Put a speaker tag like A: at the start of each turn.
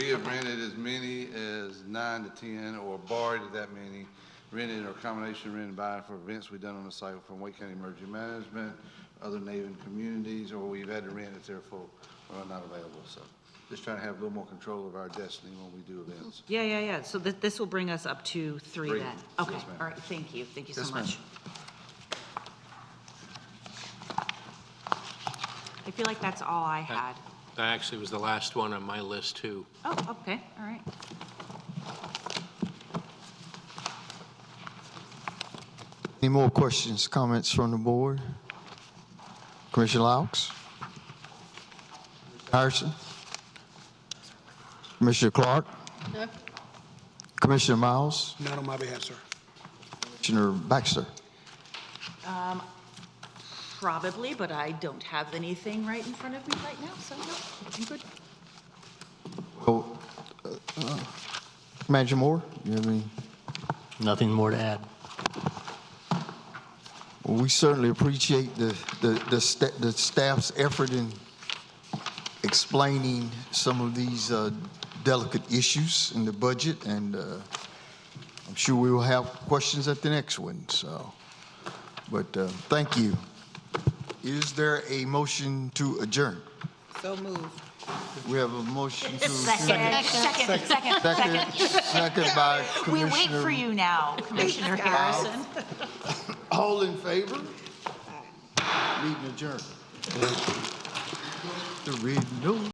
A: We have rented as many as nine to 10, or borrowed that many, rented or combination rented by for events we've done on the site from Wake County Emergency Management, other Navy communities, or we've had to rent if they're full or not available. So just trying to have a little more control of our destiny when we do events.
B: Yeah, yeah, yeah. So thi- this will bring us up to three
A: Three.
B: then?
A: Yes,
B: Okay,
A: ma'am.
B: all right, thank you, thank you so
A: Yes, ma'am.
B: much. I feel like that's all I had.
C: That actually was the last one on my list, too.
B: Oh, okay, all right.
D: Any more questions, comments from the board? Commissioner Laux? Harrison? Commissioner Clark?
E: No.
D: Commissioner Miles?
F: Not on my behalf, sir.
D: Commissioner Baxter?
B: Probably, but I don't have anything right in front of me right now, so no, I'm good.
D: Oh, uh, uh, Manager Moore, you have any?
G: Nothing more to add.
D: Well, We certainly appreciate the, the, the sta- the staff's effort in explaining some of these uh, delicate issues in the budget, and uh, I'm sure we will have questions at the next one, so. But uh, thank you. Is there a motion to adjourn?
E: So moved.
D: We have a motion to.
B: Second, second, second.
D: Second, second by
B: We wait for
D: Commissioner.
B: you now, Commissioner Harrison.
D: All in favor? Meeting adjourned. The reading, no.